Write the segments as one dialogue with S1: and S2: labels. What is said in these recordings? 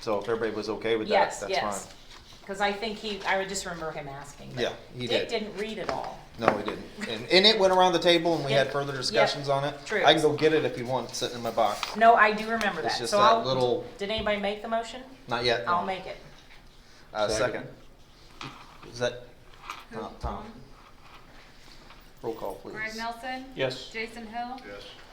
S1: So if everybody was okay with that,
S2: Yes,
S1: that's
S2: yes.
S1: fine.
S2: Because I think he, I would just remember him asking. but
S1: Yeah, he
S2: Dick
S1: did.
S2: didn't read it all.
S1: No, we didn't. And, and it went around the table and we had
S2: It-
S1: further
S2: yeah,
S1: discussions on it.
S2: true.
S1: I can go get it if you want, it's sitting in my box.
S2: No, I do remember that.
S1: It's just
S2: So
S1: that
S2: I'll-
S1: little-
S2: Did anybody make the motion?
S1: Not yet. no.
S2: I'll make it.
S1: Uh, second.
S3: Second.
S1: Is that, Tom, Tom, roll call please.
S4: Greg Nelson.
S3: Yes.
S4: Jason Hill.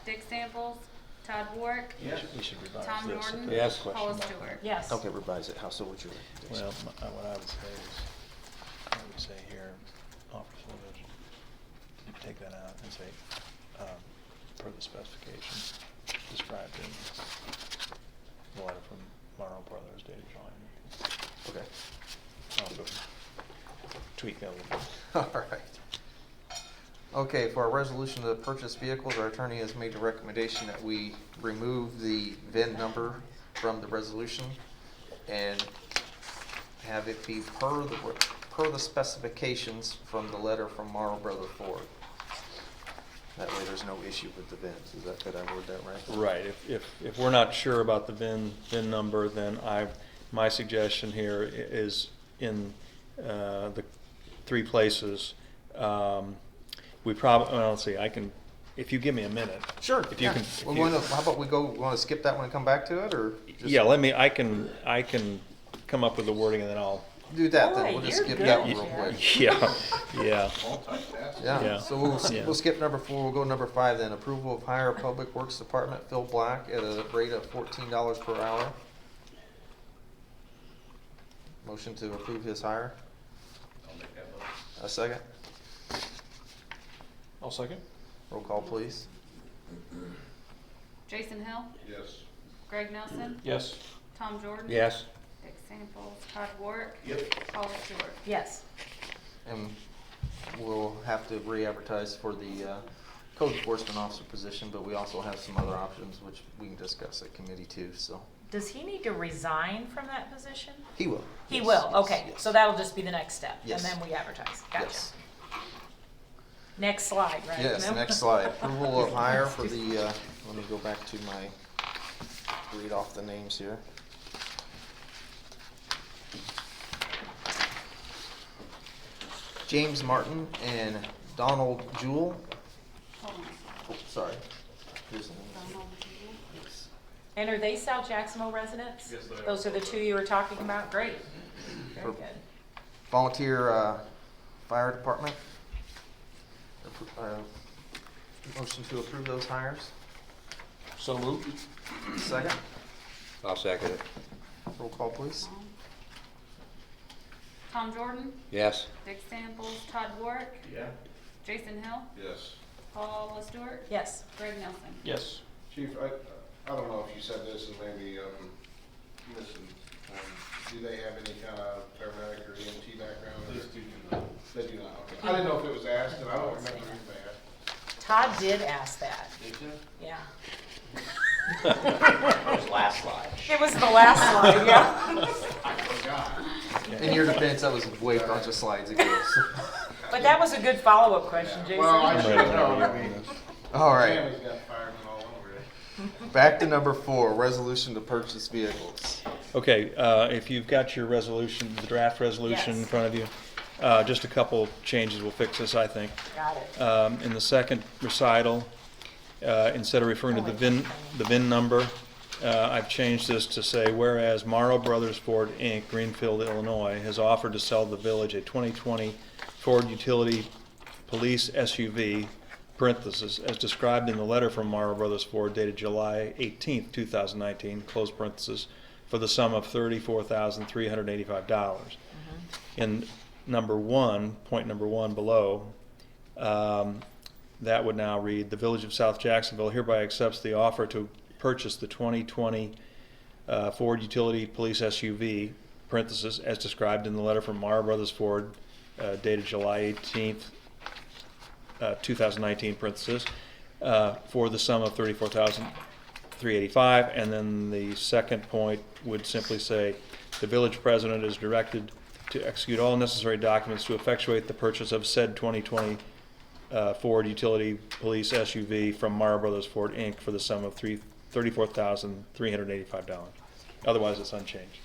S4: Dick Samples. Todd Warwick.
S5: We should revise
S4: Tom
S5: this if
S4: Norton.
S5: there's a
S3: Yes.
S5: question
S4: Paula
S5: about it.
S4: Stewart.
S2: Yes.
S1: Okay, revise it, how, so what's your?
S5: Well, my- what I would say is, I would say here, offer full vision, take that out and say, um, per the specifications described in the letter from Morrow Brothers dated July.
S1: Okay,
S5: I'll go Tweak that a little bit.
S1: alright. Okay, for our resolution to purchase vehicles, our attorney has made a recommendation that we remove the VIN number from the resolution and have it be per the, per the specifications from the letter from Marl Brother Ford. That way there's no issue with the VINs, is that, did I word that right?
S3: Right, if, if, if we're not sure about the VIN, VIN number, then I, my suggestion here i- is in, uh, the three places. Um, we prob, well, let's see, I can, if you give me a minute.
S1: Sure.
S3: If you
S1: yeah.
S3: can. if
S1: We
S3: you-
S1: wanna- how about we go, wanna skip that one and come back to it, or? just
S3: Yeah, let me, I can, I can come up with the wording and then I'll,
S1: Do that, then
S2: Boy,
S1: we'll just
S2: you're
S1: skip
S2: good,
S1: that one real
S2: Jared.
S1: quick.
S3: yeah, yeah.
S1: Yeah,
S3: Yeah.
S1: so we'll, s-
S3: Yeah.
S1: we'll skip number four, we'll go number five then, approval of hire Public Works Department Phil Black at a rate of fourteen dollars per hour. Motion to approve his hire, a second,
S3: I'll second.
S1: roll call please.
S4: Jason Hill.
S6: Yes.
S4: Greg Nelson.
S3: Yes.
S4: Tom Jordan.
S3: Yes.
S4: Dick Samples. Todd Warwick.
S6: Yep.
S4: Paula Stewart.
S2: Yes.
S1: And we'll have to re-advertise for the, uh, code enforcement officer position, but we also have some other options which we can discuss at committee too, so.
S2: Does he need to resign from that position?
S1: He will.
S2: He
S1: Yes,
S2: will,
S1: yes,
S2: okay.
S1: yes.
S2: So that'll just be the next step. And
S1: Yes.
S2: then we advertise. Gotcha.
S1: Yes.
S2: Next slide, right?
S1: Yes,
S2: No?
S1: next slide. Approval of hire for the, uh, let me go back to my, read off the names here. James Martin and Donald Jewell.
S4: Hold on a second.
S1: Oh, Sorry. Here's the
S4: Don't
S1: names.
S4: hold it to me.
S1: Yes.
S2: And are they South Jacksonville residents? Yes, they are. Those are the two you were talking about? Great. Very good.
S1: Volunteer uh, Fire Department. Appro- uh, Motion to approve those hires.
S3: So moved.
S1: Second,
S7: I'll second it.
S1: roll call please.
S4: Tom. Tom Jordan.
S7: Yes.
S4: Dick Samples. Todd Warwick.
S6: Yeah.
S4: Jason Hill.
S6: Yes.
S4: Paula Stewart.
S2: Yes.
S4: Greg Nelson.
S3: Yes.
S6: Chief, I, I don't know if you said this and maybe, um, listen, um, do they have any kind of paramedic or EMT background? They do not. They do not, okay. I didn't know if it was asked and I don't remember if they asked.
S2: Todd did ask that. Yeah. It was the last slide, yeah.
S1: In your defense, that was way a bunch of slides ago. so-
S2: But that was a good follow-up question, Jason.
S6: Well, I should have known, I mean,
S1: All right,
S6: Tammy's got firemen all over it.
S1: back to number four, resolution to purchase vehicles.
S3: Okay, uh, if you've got your resolution, the draft resolution in
S2: Yes.
S3: front of you, uh, just a couple changes will fix this, I think.
S2: Got it.
S3: Um, In the second recital, uh, instead of referring to the VIN, the VIN number, uh, I've changed this to say, whereas Morrow Brothers Ford, Inc., Greenfield, Illinois, has offered to sell the village a 2020 Ford Utility Police SUV, parentheses, as described in the letter from Morrow Brothers Ford dated July 18th, 2019, close parentheses, for the sum of $34,385. In number one, point number one below, um, that would now read, "The Village of South Jacksonville hereby accepts the offer to purchase the 2020 uh, Ford Utility Police SUV, parentheses, as described in the letter from Mara Brothers Ford uh, dated July 18th, uh, 2019, parentheses, uh, for the sum of 34385 And then the second point would simply say, "The village president is directed to execute all necessary documents to effectuate the purchase of said 2020 uh, Ford Utility Police SUV from Mara Brothers Ford, Inc. for the sum of three- $34,385." Otherwise, it's unchanged.